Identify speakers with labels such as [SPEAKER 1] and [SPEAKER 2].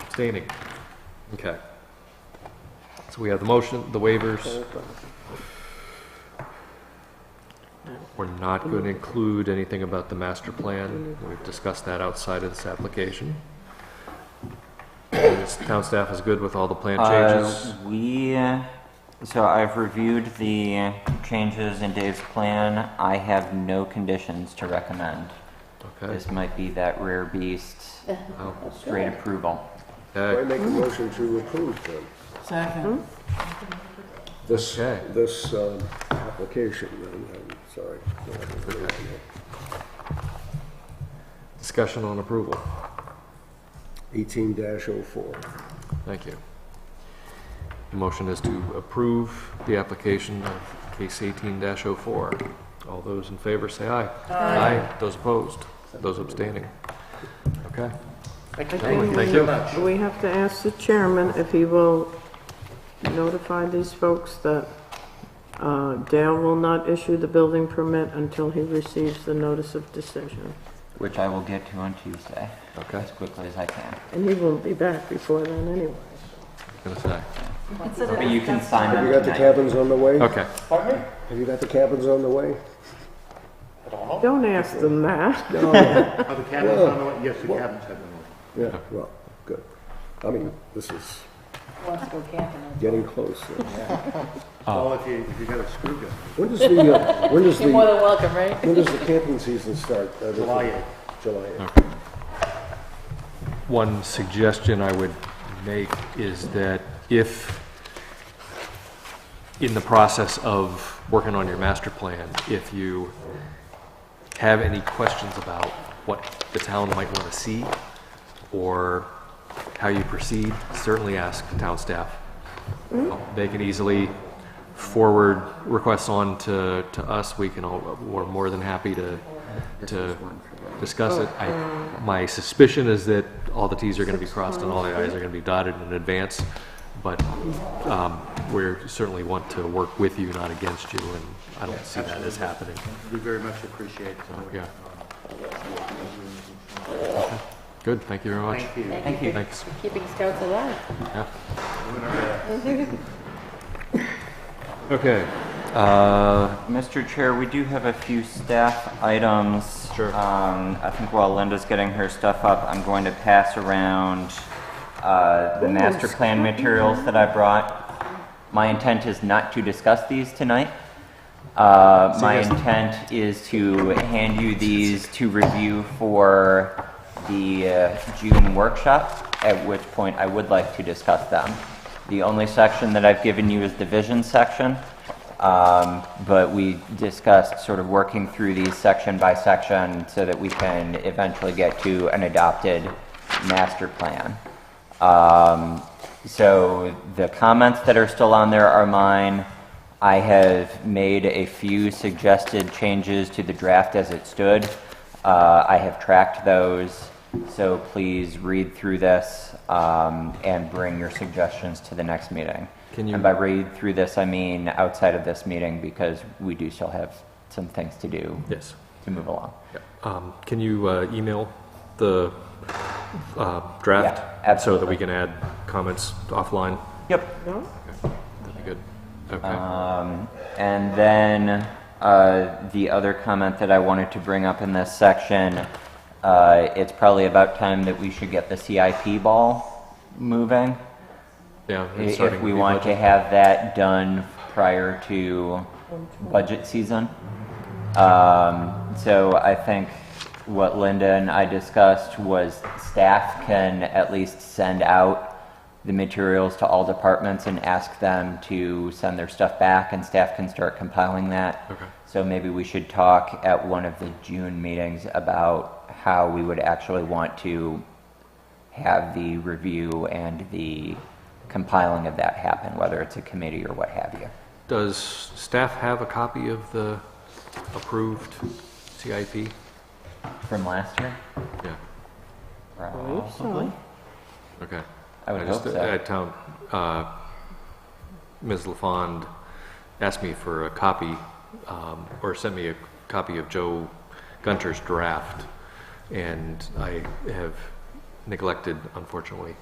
[SPEAKER 1] abstaining. Okay. So we have the motion, the waivers. We're not going to include anything about the master plan. We've discussed that outside of this application. And this Town staff is good with all the plan changes.
[SPEAKER 2] Uh, we, uh, so I've reviewed the changes in Dave's plan. I have no conditions to recommend.
[SPEAKER 1] Okay.
[SPEAKER 2] This might be that rare beast,
[SPEAKER 1] Wow.
[SPEAKER 2] straight approval.
[SPEAKER 3] I
[SPEAKER 1] Okay.
[SPEAKER 3] make a motion to approve them,
[SPEAKER 4] Second.
[SPEAKER 3] this,
[SPEAKER 1] Okay.
[SPEAKER 3] this um, application, I'm- I'm sorry. No, I don't really want it.
[SPEAKER 1] Discussion on approval.
[SPEAKER 3] 18-04.
[SPEAKER 1] Thank you. The motion is to approve the application of case eighteen 4 All those in favor say aye. Aye. Those opposed? Those abstaining? Okay. Gentlemen, Thank you.
[SPEAKER 4] We have to ask the chairman if he will notify these folks that uh, Dale will not issue the building permit until he receives the notice of decision.
[SPEAKER 2] Which I will get to on Tuesday,
[SPEAKER 1] Okay,
[SPEAKER 2] as quickly as I can.
[SPEAKER 4] And he won't be back before then anyway.
[SPEAKER 1] gonna say.
[SPEAKER 2] But you can sign
[SPEAKER 3] Have
[SPEAKER 2] them
[SPEAKER 3] you got the
[SPEAKER 2] tonight.
[SPEAKER 3] cabins on the way?
[SPEAKER 1] Okay,
[SPEAKER 3] Have you got the cabins on the way?
[SPEAKER 4] Don't ask them that.
[SPEAKER 3] No.
[SPEAKER 5] Are Oh, the cabins on the way? Yes, the cabins have been ordered.
[SPEAKER 3] Yeah, well, good. I mean, this is getting close.
[SPEAKER 5] Well, if you, if you got a screw gun,
[SPEAKER 3] When does the, uh, when does the,
[SPEAKER 6] More than welcome, right?
[SPEAKER 3] when does the camping season start? Uh, the-
[SPEAKER 5] July eighth.
[SPEAKER 3] July eighth.
[SPEAKER 1] one suggestion I would make is that if, in the process of working on your master plan, if you have any questions about what the town might want to see or how you proceed, certainly ask the town staff. They can easily forward requests on to, to us. We can all, we're more than happy to, to discuss it. I, my suspicion is that all the Ts are going to be crossed and all the Is are going to be dotted in advance. But, um, we're certainly want to work with you, not against you, and I don't see that as happening.
[SPEAKER 5] we very much appreciate it.
[SPEAKER 1] Oh, Yeah. Good, thank you very much.
[SPEAKER 5] Thank you.
[SPEAKER 6] Thank you
[SPEAKER 1] Thanks.
[SPEAKER 6] for keeping scouts alive.
[SPEAKER 1] Yeah. Okay, uh,
[SPEAKER 2] Mr. Chair, we do have a few staff items.
[SPEAKER 1] Sure.
[SPEAKER 2] Um, I think while Linda's getting her stuff up, I'm going to pass around, uh, the master plan materials that I brought. My intent is not to discuss these tonight. Uh, my intent is to hand you these to review for the uh, June workshop, at which point I would like to discuss them. The only section that I've given you is the vision section, um, but we discussed sort of working through these section by section so that we can eventually get to an adopted master plan. Um, so the comments that are still on there are mine. I have made a few suggested changes to the draft as it stood. Uh, I have tracked those, so please read through this um, and bring your suggestions to the next meeting.
[SPEAKER 1] Can you-
[SPEAKER 2] And by read through this, I mean outside of this meeting because we do still have some things to do
[SPEAKER 1] yes,
[SPEAKER 2] to move along.
[SPEAKER 1] um, can you, uh, email the, uh, draft?
[SPEAKER 2] Yeah,
[SPEAKER 1] So that we can add comments offline?
[SPEAKER 2] Yep.
[SPEAKER 4] No?
[SPEAKER 1] That'd be good. Okay,
[SPEAKER 2] Um, and then uh, the other comment that I wanted to bring up in this section, uh, it's probably about time that we should get the CIP ball moving.
[SPEAKER 1] yeah.
[SPEAKER 2] i-
[SPEAKER 1] it's starting
[SPEAKER 2] If we
[SPEAKER 1] the
[SPEAKER 2] want to
[SPEAKER 1] budget.
[SPEAKER 2] have that done prior to budget season. Um, so I think what Linda and I discussed was staff can at least send out the materials to all departments and ask them to send their stuff back and staff can start compiling that.
[SPEAKER 1] Okay.
[SPEAKER 2] So maybe we should talk at one of the June meetings about how we would actually want to have the review and the compiling of that happen, whether it's a committee or what have you.
[SPEAKER 1] Does staff have a copy of the approved CIP?
[SPEAKER 2] From last year? uh,
[SPEAKER 1] Yeah,
[SPEAKER 2] Probably.
[SPEAKER 1] okay.
[SPEAKER 2] I would
[SPEAKER 1] just-
[SPEAKER 2] hope so.
[SPEAKER 1] At town, uh, Ms. LaFond asked me for a copy, um, or sent me a copy of Joe Gunter's draft, and I have neglected, unfortunately,